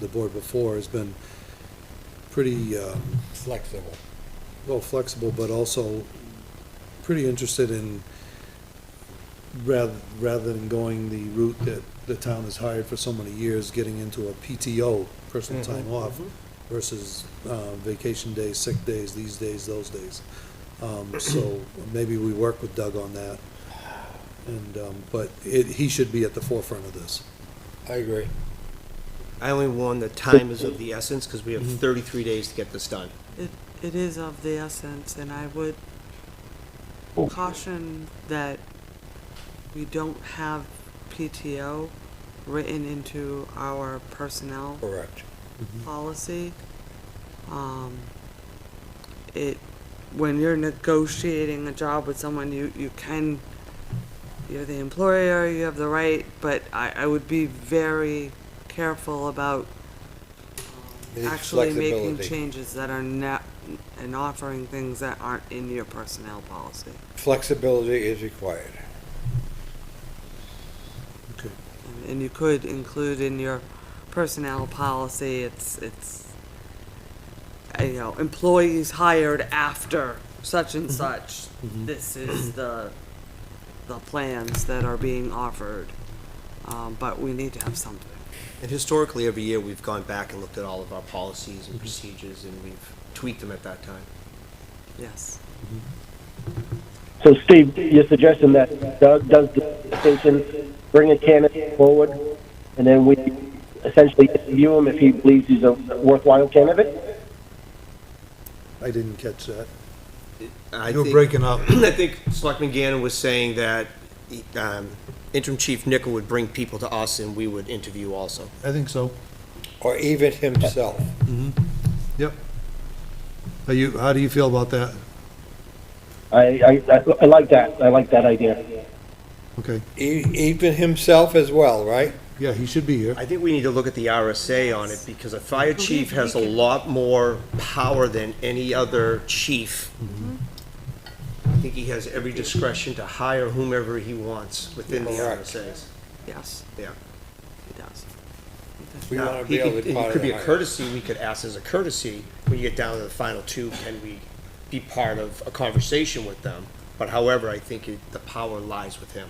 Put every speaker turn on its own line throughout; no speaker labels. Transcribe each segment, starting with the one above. the board before has been pretty, um,
flexible.
well, flexible, but also pretty interested in, rather, rather than going the route that the town has hired for so many years, getting into a PTO, personal
Mm-hmm.
time
Mhm.
off, versus uh, vacation days, sick days, these days, those days. Um, So maybe we work with Doug on that. And, um, but it, he should be at the forefront of this.
I agree.
I only warn that time is of the essence because we have 33 days to get this done.
It, it is of the essence, and I would caution that we don't have PTO written into our personnel
Correct.
policy. Um, it, when you're negotiating a job with someone, you, you can, you're the employer, you have the right, but I, I would be very careful about um,
It needs
actually making
flexibility.
changes that are not, and offering things that aren't in your personnel policy.
Flexibility is required.
Okay.
And- And you could include in your personnel policy, it's, it's, uh, you know, employees hired after such and such. This is the, the plans that are being offered. Um, but we need to have something.
And historically, every year, we've gone back and looked at all of our policies and procedures, and we've tweaked them at that time.
Yes,
So Steve, you're suggesting that Doug does the station, bring a candidate forward, and then we essentially interview him if he believes he's a worthwhile candidate?
I didn't catch that.
I
You're
think-
breaking up.
I think Selectman Gannon was saying that um, interim chief Nichol would bring people to us and we would interview also.
I think so.
Or even himself.
Yep. Are you, how do you feel about that?
I, I, I- I like that, I like that idea.
Okay,
E- even himself as well, right?
yeah, he should be here.
I think we need to look at the RSA on it because a fire chief has a lot more power than any other chief. I think he has every discretion to hire whomever he wants within the
Correct.
RSAs.
yes,
Yeah.
it does.
We
Now,
want to
he
be able
could-
to.
It could be a
hire.
courtesy, we could ask as a courtesy, when you get down to the final two, can we be part of a conversation with them? But however, I think it- the power lies with him.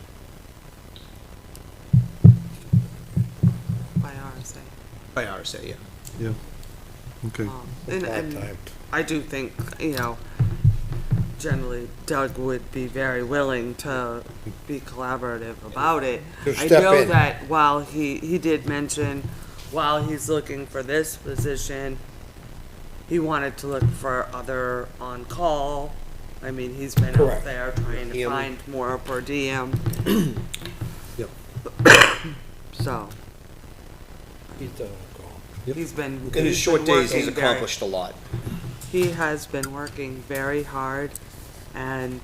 By RSA.
By RSA, yeah.
Yeah. Okay,
Um, And, and
Part-time.
I do think, you know, generally Doug would be very willing to be collaborative about it.
To
I
step
know
in.
that while he, he did mention, while he's looking for this position, he wanted to look for other on-call. I mean, he's been out
Correct.
there trying to
Him.
find more per diem.
Yep.
So,
He's done a call.
he's been.
In his
he's
short
been
days, he's
working very-
accomplished a lot.
he has been working very hard, and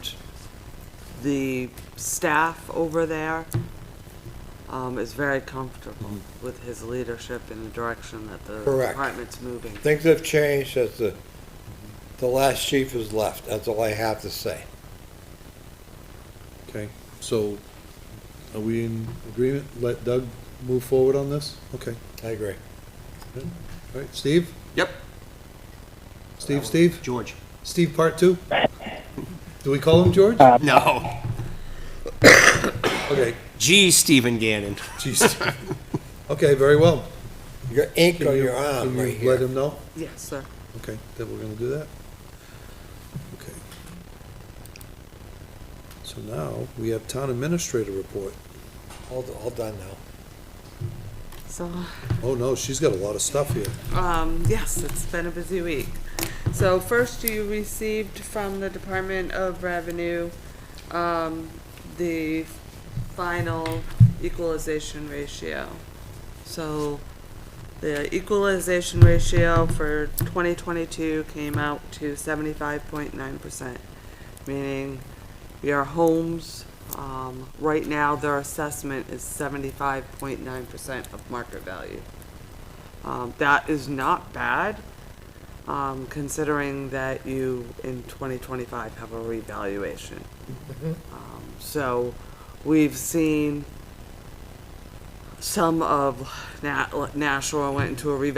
the staff over there um, is very comfortable with his leadership and the direction that the
Correct.
department's moving.
Things have changed since the, the last chief has left. That's all I have to say.
Okay, so are we in agreement? Let Doug move forward on this? Okay,
I agree.
all right, Steve?
Yep.
Steve, Steve?
George?
Steve, part two? Do we call him George?
Uh.
No.
Okay,
Geez, Stephen Gannon.
jeez. Okay, very well.
You got ink
Can
on
you-
your arm
can you
right
Let
here.
him know,
Yes, sir.
okay, that we're gonna do that? Okay. So now, we have town administrator report.
All, all done now.
So,
Oh, no, she's got a lot of stuff here.
um, yes, it's been a busy week. So first, you received from the Department of Revenue um, the final equalization ratio. So the equalization ratio for 2022 came out to 75.9%, meaning your homes, um, right now, their assessment is 75.9% of market value. Um, that is not bad, um, considering that you, in 2025, have a revaluation. Um, so, we've seen some of Na- Nashua went into a revaluation